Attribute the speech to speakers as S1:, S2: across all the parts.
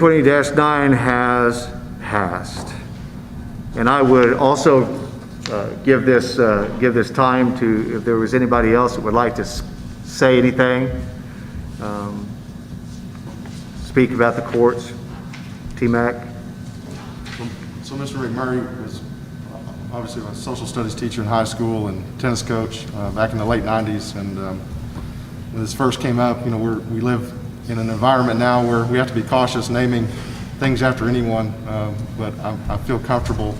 S1: 2020-9 has passed. And I would also uh, give this, uh, give this time to, if there was anybody else that would like to s- say anything, um, speak about the courts, T-Mac.
S2: So Mr. McMurray was uh, obviously a social studies teacher in high school and tennis coach uh, back in the late 90s. And um, when this first came up, you know, we're, we live in an environment now where we have to be cautious naming things after anyone. um, But I, I feel comfortable,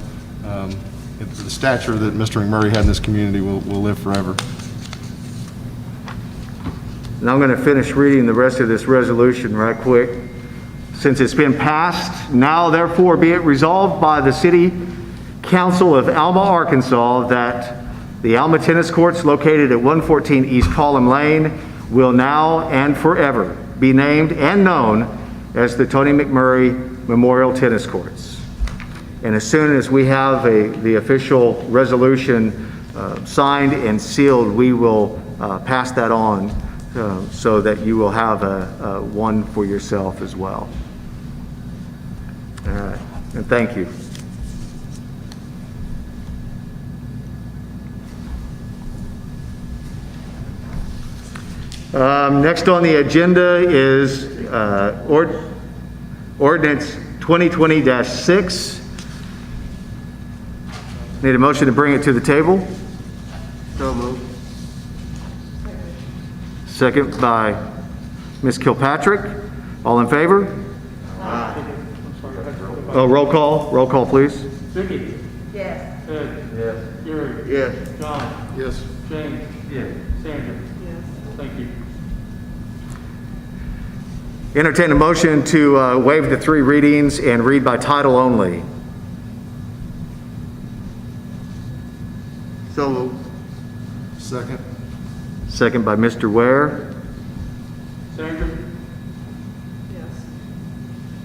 S2: um, that the stature that Mr. McMurray had in this community will, will live forever.
S1: And I'm going to finish reading the rest of this resolution right quick. Since it's been passed, now therefore be it resolved by the City Council of Alma, Arkansas, that the Alma Tennis Courts located at 114 East Column Lane will now and forever be named and known as the Tony McMurray Memorial Tennis Courts. And as soon as we have a, the official resolution uh, signed and sealed, we will uh, pass that on uh, so that you will have a, a one for yourself as well. All right, and thank you. Um, Next on the agenda is uh, ord- ordinance 2020-6. Need a motion to bring it to the table? So Second by Ms. Kilpatrick. All in favor? Oh, roll call, roll call, please.
S3: Vicky,
S4: Yes.
S3: Ed. Yes. Gary.
S1: Yes.
S3: John.
S2: Yes.
S3: James. Yes. Sandra. Yes. Thank you.
S1: Entertain a motion to uh, waive the three readings and read by title only.
S2: So Second?
S1: Second by Mr. Ware.
S3: Sandra.
S4: Yes.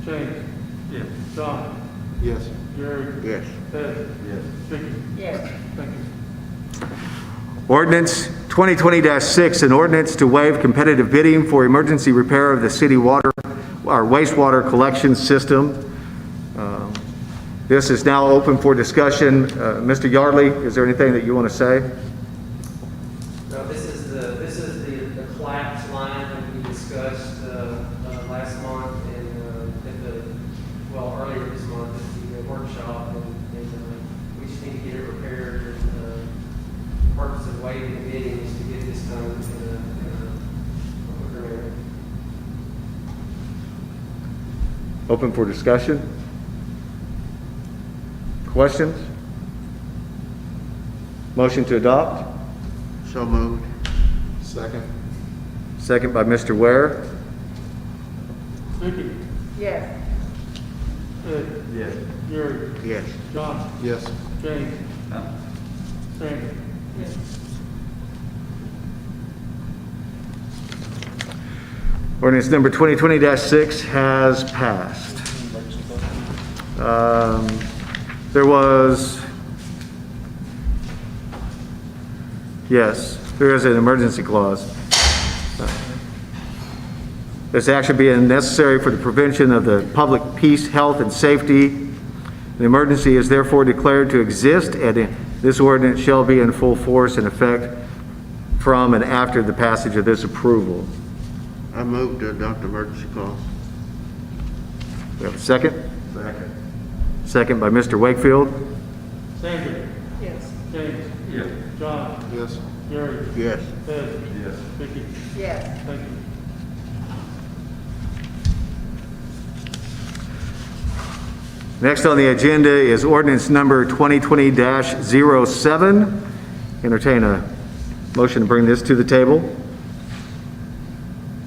S3: James. Yes. John.
S2: Yes.
S3: Gary.
S1: Yes.
S3: Ed. Yes. Vicky.
S4: Yes.
S3: Thank you.
S1: Ordinance 2020-6, an ordinance to waive competitive bidding for emergency repair of the city water, our wastewater collection system. Um, This is now open for discussion. Uh, Mr. Yardley, is there anything that you want to say?
S5: No, this is the, this is the, the collapse line that we discussed, uh, uh, last month and, uh, at the, well, earlier this month at the uh, workshop. And, and, uh, we just need to get it repaired and, uh, the purpose of waiving the bidding is to get this done uh, in a, in a quicker manner.
S1: Open for discussion? Questions? Motion to adopt?
S2: So moved. Second?
S1: Second by Mr. Ware.
S3: Vicky.
S4: Yes.
S3: Ed. Yes. Gary.
S1: Yes.
S3: John.
S2: Yes.
S3: James. Sandra.
S4: Yes.
S1: Ordinance number 2020-6 has passed. Um, There was, yes, there is an emergency clause. This action being necessary for the prevention of the public peace, health, and safety. The emergency is therefore declared to exist, and this ordinance shall be in full force and effect from and after the passage of this approval.
S6: I move to adopt emergency clause.
S1: We have a second? Second. Second by Mr. Wakefield.
S3: Sandra.
S4: Yes.
S3: James. Yes. John.
S2: Yes.
S3: Gary.
S6: Yes.
S3: Ed. Yes. Vicky.
S4: Yes.
S3: Thank you.
S1: Next on the agenda is ordinance number 2020-07. Entertain a motion to bring this to the table.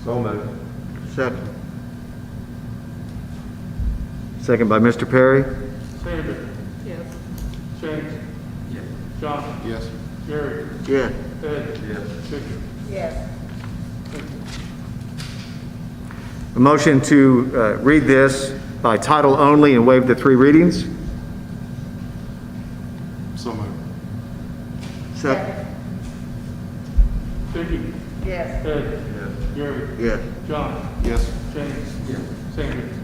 S2: So moved.
S6: Second.
S1: Second by Mr. Perry.
S3: Sandra.
S4: Yes.
S3: James. Yes. John.
S2: Yes.
S3: Gary.
S6: Yes.
S3: Ed. Yes. Vicky.
S4: Yes.
S1: A motion to uh, read this by title only and waive the three readings.
S2: So moved.
S6: Second.
S3: Vicky.
S4: Yes.
S3: Ed. Yes. Gary.
S6: Yes.
S3: John.
S2: Yes.
S3: James. Yes. Sandra.